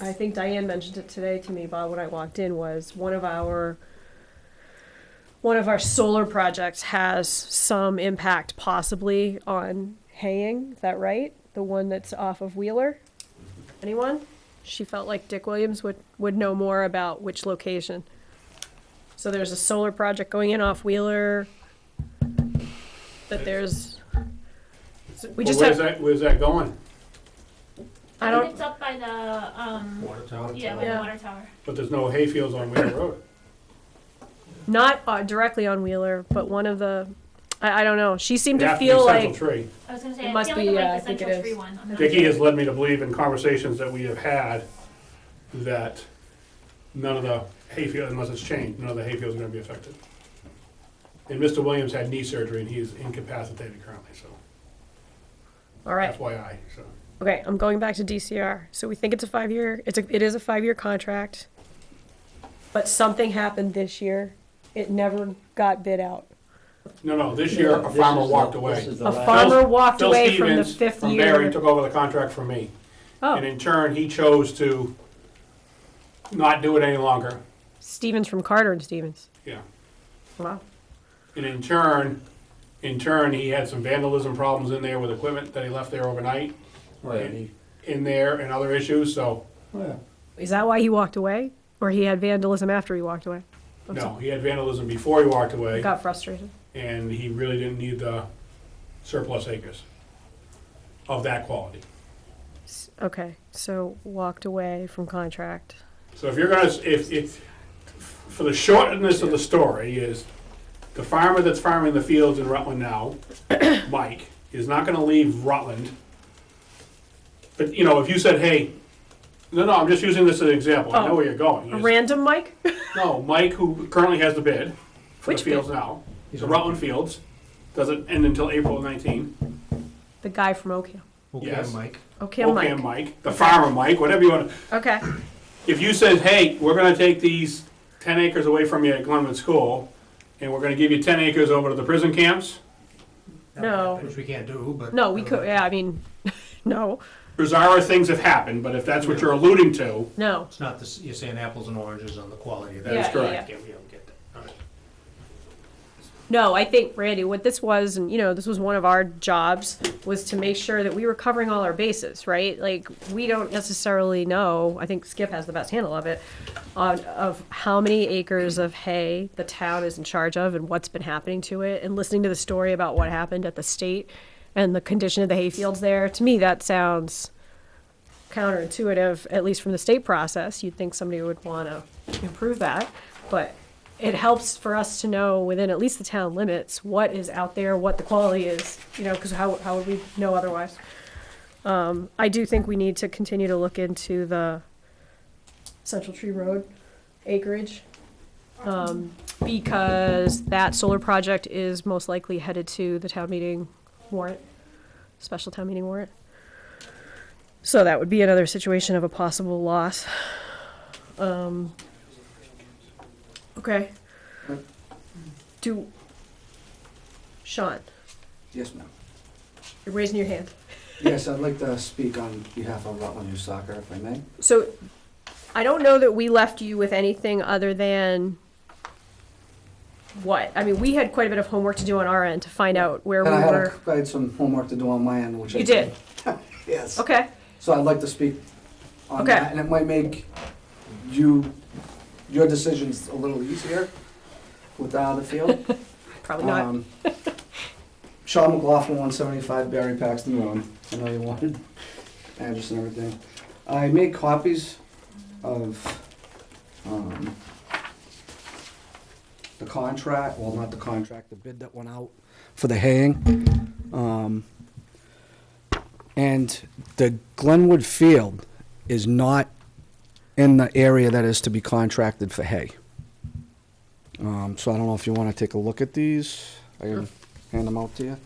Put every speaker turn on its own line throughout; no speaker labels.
I think Diane mentioned it today to me, Bob, when I walked in, was one of our, one of our solar projects has some impact possibly on haying, is that right? The one that's off of Wheeler? Anyone? She felt like Dick Williams would, would know more about which location. So there's a solar project going in off Wheeler, that there's, we
Well,
just
where's
have,
that, where's that going?
I don't,
It's up by the, um,
Water tower.
yeah, by the
Yeah.
water tower.
But there's no hayfields on Wheeler Road.
not uh, directly on Wheeler, but one of the, I, I don't know. She seemed
It
to
has to be
feel
Central
like
Tree.
I was gonna
It
say, I
must
feel
be,
like
uh,
I
I
like the
think it
Central
is.
Tree one. I'm not
Dicky
sure.
has led me to believe in conversations that we have had that none of the hayfield, unless it's changed, none of the hayfields are gonna be affected. And Mr. Williams had knee surgery and he is incapacitated currently, so
all right.
that's why I, so.
Okay, I'm going back to DCR. So we think it's a five year. It's a it is a five year contract. But something happened this year. It never got bid out.
No, no, this year a farmer walked away.
A farmer walked
Phil
away from the
Stevens
fifth
From
year.
Barry took over the contract from me. And
oh,
in turn, he chose to not do it any longer.
Stevens from Carter and Stevens.
Yeah.
Wow.
And in turn, in turn, he had some vandalism problems in there with equipment that he left there overnight in there and other issues, so,
Is that why he walked away, or he had vandalism after he walked away? I'm
no, he had vandalism before he walked away,
Got frustrated.
and he really didn't need the surplus acres of that quality.
S- Okay, so walked away from contract.
So if you're gonna, if, if, for the shortness of the story is, the farmer that's farming the fields in Rutland now, Mike, is not gonna leave Rutland. But, you know, if you said, hey, no, no, I'm just using this as an example, I know where you're going.
Oh, A
He's-
random Mike.
No, Mike, who currently has the bid for the
Which bid?
fields now, the Rutland Fields, doesn't end until April of nineteen.
the guy from Ocam.
Yes.
Mike.
Okay,
Okay,
Mike.
Mike, the farmer Mike, whatever you wanna,
Okay.
if you said, hey, we're gonna take these ten acres away from you at Glenwood School, and we're gonna give you ten acres over to the prison camps,
No.
Which we can't do, but. uh,
No, we could. Yeah, I mean, no,
bizarre things have happened, but if that's what you're alluding to,
no.
It's not, this- you're saying apples and oranges on the quality of that.
that is
Yeah,
correct.
Yeah, we don't get that. All right.
No, I think, Randy, what this was, and you know, this was one of our jobs, was to make sure that we were covering all our bases, right? Like, we don't necessarily know, I think Skip has the best handle of it, on, of how many acres of hay the town is in charge of and what's been happening to it, and listening to the story about what happened at the state and the condition of the hay fields there, to me, that sounds counterintuitive, at least from the state process. You'd think somebody would want to improve that, but it helps for us to know within at least the town limits what is out there, what the quality is, you know, because how, how would we know otherwise? Um, I do think we need to continue to look into the Central Tree Road acreage. Um, because that solar project is most likely headed to the town meeting warrant, special town meeting warrant. So that would be another situation of a possible loss. Um, okay. Do, Sean,
Yes, ma'am.
you're raising your hand.
Yes, I'd like to speak on behalf of Rutland Youth Soccer, if I may.
So I don't know that we left you with anything other than what? I mean, we had quite a bit of homework to do on our end to find out where
And
we
I had,
were.
a- I had some homework to do on my end, which I
You did?
Yes.
Okay,
So I'd like to speak on
Okay.
that, and it might make you, your decisions a little easier with uh, the field.
probably not.
Um, Sean McLaughlin, one seventy-five Barry Paxton Road. I know you wanted address and everything. I made copies of, um, the contract, well, not the contract, the bid that went out for the haying. Um, and the Glenwood Field is not in the area that is to be contracted for hay. Um, so I don't know if you want to take a look at these. I can hand them out to you.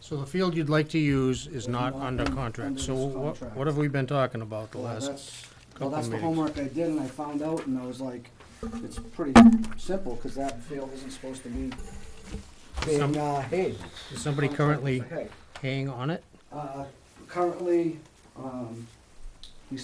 So the field you'd like to use is not under contract,
Under
so
this
what,
contract.
what have we been talking about the
Well,
last?
that's, well,
couple
that's the
meetings.
homework I did, and I found out, and I was like, it's pretty simple, because that field isn't supposed to be
Some-
being, uh, hayed.
Is somebody
Contracted
currently
for hay.
haying on it?
Uh, currently, um,